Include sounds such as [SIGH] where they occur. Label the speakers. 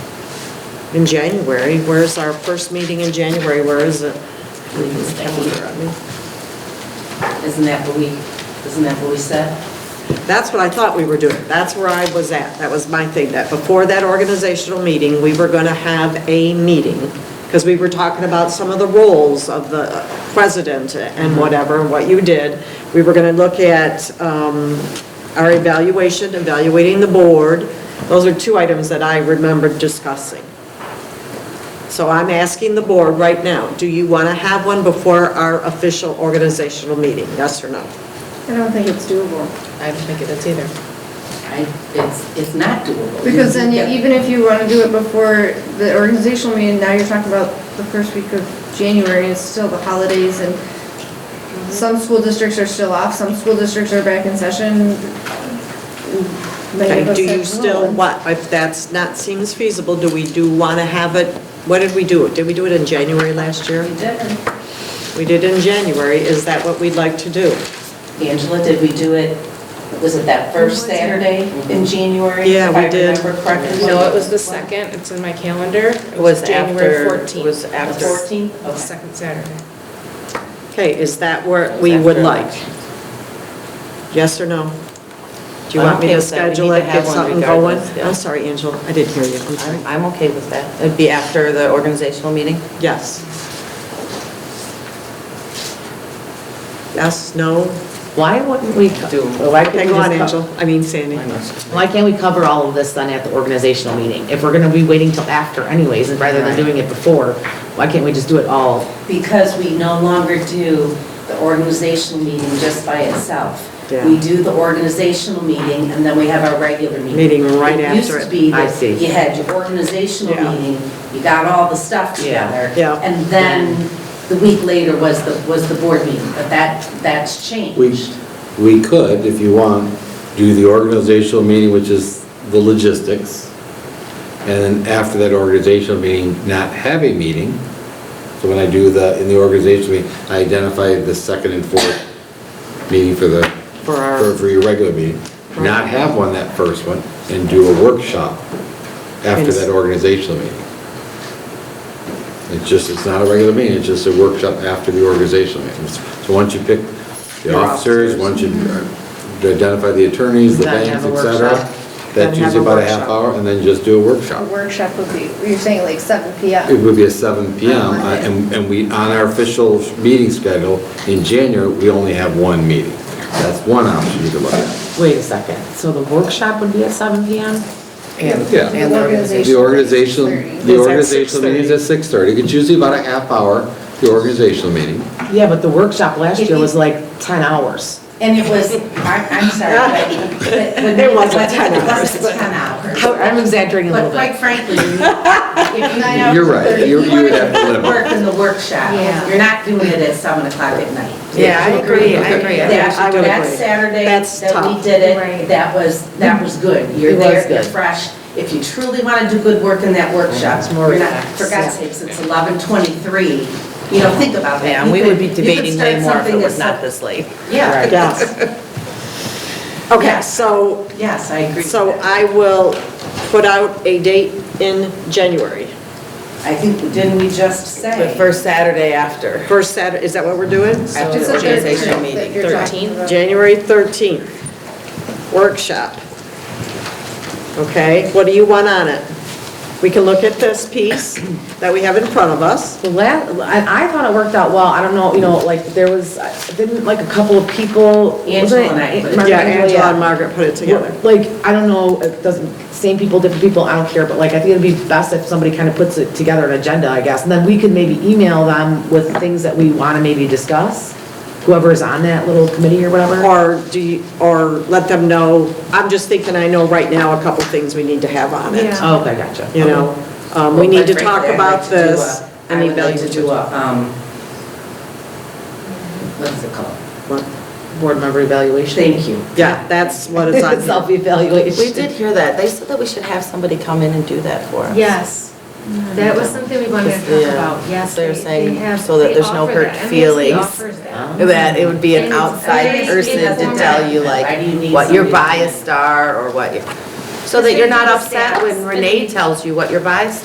Speaker 1: in January. Where's our first meeting in January? Where is it? Please, calendar, I mean.
Speaker 2: Isn't that what we, isn't that what we said?
Speaker 1: That's what I thought we were doing. That's where I was at. That was my thing, that before that organizational meeting, we were going to have a meeting, because we were talking about some of the roles of the president and whatever, what you did. We were going to look at um, our evaluation, evaluating the board. Those are two items that I remembered discussing. So I'm asking the board right now, do you want to have one before our official organizational meeting? Yes or no?
Speaker 3: I don't think it's doable.
Speaker 4: I don't think it is either.
Speaker 2: I, it's, it's not doable.
Speaker 3: Because then, you- even if you want to do it before the organizational meeting, now you're talking about the first week of January, it's still the holidays, and some school districts are still off, some school districts are back in session. Many
Speaker 1: Okay,
Speaker 3: of us
Speaker 1: do you
Speaker 3: have
Speaker 1: still
Speaker 3: no.
Speaker 1: want, if that's not seems feasible, do we do want to have it, what did we do? Did we do it in January last year?
Speaker 2: We didn't.
Speaker 1: We did in January, is that what we'd like to do?
Speaker 2: Angela, did we do it, was it that first Saturday
Speaker 5: Mm-hmm.
Speaker 2: in January?
Speaker 1: Yeah, we did.
Speaker 2: If I remember correctly?
Speaker 4: No, it was the second, it's in my calendar. It
Speaker 5: was
Speaker 4: January
Speaker 5: after,
Speaker 4: 14th.
Speaker 5: was
Speaker 2: The
Speaker 5: after.
Speaker 2: 14th?
Speaker 4: The
Speaker 2: Okay.
Speaker 4: second Saturday.
Speaker 1: Okay, is that what we would like? Yes or no? Do you
Speaker 5: I
Speaker 1: want
Speaker 5: don't
Speaker 1: me to
Speaker 5: think so. We need
Speaker 1: schedule
Speaker 5: to
Speaker 1: it,
Speaker 5: have
Speaker 1: get
Speaker 5: one
Speaker 1: something going?
Speaker 5: regardless, yeah.
Speaker 1: I'm sorry, Angela, I didn't hear you, I'm
Speaker 5: I'm,
Speaker 1: sorry.
Speaker 5: I'm okay with that. It'd be after the organizational meeting?
Speaker 1: Yes. Yes, no?
Speaker 6: Why wouldn't we do, why
Speaker 1: Okay,
Speaker 6: can't
Speaker 1: go on,
Speaker 6: we just,
Speaker 1: Angela,
Speaker 6: co-
Speaker 1: I mean Sandy.
Speaker 6: why can't we cover all of this then at the organizational meeting? If we're gonna be waiting till after anyways, and rather than doing it before, why can't we just do it all?
Speaker 2: Because we no longer do the organizational meeting just by itself.
Speaker 1: Yeah.
Speaker 2: We do the organizational meeting, and then we have our regular meeting.
Speaker 1: Meeting right after
Speaker 2: used
Speaker 1: it.
Speaker 2: to be
Speaker 6: I
Speaker 2: that
Speaker 6: see.
Speaker 2: you had your organizational
Speaker 1: Yeah.
Speaker 2: meeting, you got all the stuff
Speaker 6: Yeah.
Speaker 2: together.
Speaker 1: Yeah.
Speaker 2: And then the week later was the, was the board meeting, but that, that's changed.
Speaker 7: We, we could, if you want, do the organizational meeting, which is the logistics, and then after that organizational meeting, not have a meeting. So when I do the, in the organizational meeting, I identify the second and fourth meeting for the,
Speaker 1: For our-
Speaker 7: for for your regular meeting. Not have one that first one, and do a workshop after that organizational meeting. It's just, it's not a regular meeting, it's just a workshop after the organizational meeting. So once you pick the
Speaker 1: Your officers.
Speaker 7: officers, once you uh, identify the attorneys, the
Speaker 6: Then
Speaker 7: banks,
Speaker 6: have a
Speaker 7: et cetera,
Speaker 6: workshop.
Speaker 1: Then
Speaker 7: that's
Speaker 1: have
Speaker 7: usually
Speaker 1: a
Speaker 7: about a half
Speaker 1: workshop.
Speaker 7: hour, and then just do a
Speaker 3: A
Speaker 7: workshop.
Speaker 3: workshop would be, you're saying like seven PM?
Speaker 7: It would be at seven PM,
Speaker 3: On
Speaker 7: uh,
Speaker 3: Monday.
Speaker 7: and, and we, on our official meeting schedule, in January, we only have one meeting. That's one option you could look at.
Speaker 6: Wait a second, so the workshop would be at seven PM?
Speaker 4: And-
Speaker 7: Yeah.
Speaker 4: and the organization.
Speaker 7: The organizational,
Speaker 1: It's at
Speaker 7: the organizational meeting is at six-thirty, it's usually about a half hour, the organizational meeting.
Speaker 6: Yeah, but the workshop last year was like ten hours.
Speaker 2: And it was, I'm, I'm sorry,
Speaker 1: [LAUGHS]
Speaker 2: but- but. when-
Speaker 1: It wasn't 10
Speaker 2: It
Speaker 1: hours,
Speaker 2: wasn't 10 hours.
Speaker 6: I'm exaggerating a
Speaker 2: But
Speaker 6: little
Speaker 2: quite
Speaker 6: bit.
Speaker 7: [LAUGHS]
Speaker 2: frankly, if you.
Speaker 3: Nine hours
Speaker 7: You're right.
Speaker 3: and thirty.
Speaker 7: You-
Speaker 2: If
Speaker 7: would have to
Speaker 2: wanna
Speaker 7: limit.
Speaker 2: Work in the workshop.
Speaker 3: Yeah.
Speaker 2: You're not doing it at seven o'clock at night.
Speaker 4: Yeah, I agree, I agree. I think we
Speaker 2: That,
Speaker 4: should do it.
Speaker 2: that Saturday
Speaker 1: That's
Speaker 2: that we
Speaker 1: tough.
Speaker 2: did it,
Speaker 3: Right.
Speaker 2: that was, that was good. You're
Speaker 6: It was
Speaker 2: there, you're
Speaker 6: good.
Speaker 2: fresh. If you truly want to do good work in that workshop,
Speaker 6: It's more
Speaker 2: you're not-
Speaker 6: relaxed,
Speaker 2: For God's
Speaker 6: yeah.
Speaker 2: sakes, it's eleven twenty-three. You know, think about that.
Speaker 5: Yeah,
Speaker 2: You
Speaker 5: and we would be
Speaker 2: could- you could
Speaker 5: debating
Speaker 2: start
Speaker 5: way more if it
Speaker 2: something
Speaker 5: was
Speaker 2: that's-
Speaker 5: not this late.
Speaker 2: Yeah,
Speaker 5: [LAUGHS]
Speaker 6: Right.
Speaker 1: Yes. Okay, so
Speaker 2: yes, I agree. with
Speaker 1: So
Speaker 2: that.
Speaker 1: I will put out a date in January.
Speaker 2: I think, didn't we just say?
Speaker 5: The first Saturday after.
Speaker 1: First Saturday, is that what we're doing?
Speaker 5: After
Speaker 3: It's a third
Speaker 5: the organizational
Speaker 3: trip that
Speaker 5: meeting,
Speaker 3: you're talking
Speaker 4: 13th.
Speaker 3: about.
Speaker 1: January 13th, workshop. Okay, what do you want on it? We can look at this piece that we have in front of us.
Speaker 6: The last, I, I thought it worked out well, I don't know, you know, like, there was, didn't like a couple of people. was
Speaker 2: Angela
Speaker 6: it-
Speaker 2: and I put it
Speaker 6: Mark
Speaker 1: Yeah,
Speaker 6: Angela,
Speaker 1: Angela and
Speaker 6: yeah.
Speaker 1: Margaret put it together.
Speaker 6: Like, I don't know, it doesn't, same people, different people, I don't care, but like, I think it'd be best if somebody kind of puts it together an agenda, I guess, and then we can maybe email them with things that we want to maybe discuss, whoever's on that little committee or whatever.
Speaker 1: Or do you, or let them know, I'm just thinking, I know right now a couple things we need to have on it.
Speaker 3: Yeah.
Speaker 6: Oh, Okay, gotcha.
Speaker 1: You know, Um, we
Speaker 2: Well,
Speaker 1: need to
Speaker 2: quite
Speaker 1: talk
Speaker 2: frankly, I'd
Speaker 1: about
Speaker 2: like to do a-
Speaker 1: this. and
Speaker 2: I would like to
Speaker 1: evaluate-
Speaker 2: do a, um, what's it called?
Speaker 1: What?
Speaker 6: Board member evaluation.
Speaker 2: Thank you.
Speaker 1: Yeah, that's what
Speaker 6: [LAUGHS]
Speaker 1: it's
Speaker 2: [LAUGHS]
Speaker 1: on. here.
Speaker 6: Self-evaluation.
Speaker 5: We did hear that. They said that we should have somebody come in and do that for us.
Speaker 8: Yes, that was something we wanted to
Speaker 5: Yeah.
Speaker 8: talk about, yes.
Speaker 5: They're
Speaker 8: they- they
Speaker 5: saying
Speaker 8: have-
Speaker 5: so that
Speaker 8: they
Speaker 5: there's no
Speaker 8: offer
Speaker 5: hurt
Speaker 8: that. MASC
Speaker 5: feelings.
Speaker 8: offers that.
Speaker 5: That it would be an
Speaker 8: And it's
Speaker 5: outside
Speaker 8: very
Speaker 5: person to
Speaker 8: informal.
Speaker 5: tell you
Speaker 2: Why do you
Speaker 5: like
Speaker 2: need
Speaker 5: what your
Speaker 2: somebody to-
Speaker 5: biased are or what, you- so that you're not upset when Renee tells you what your biased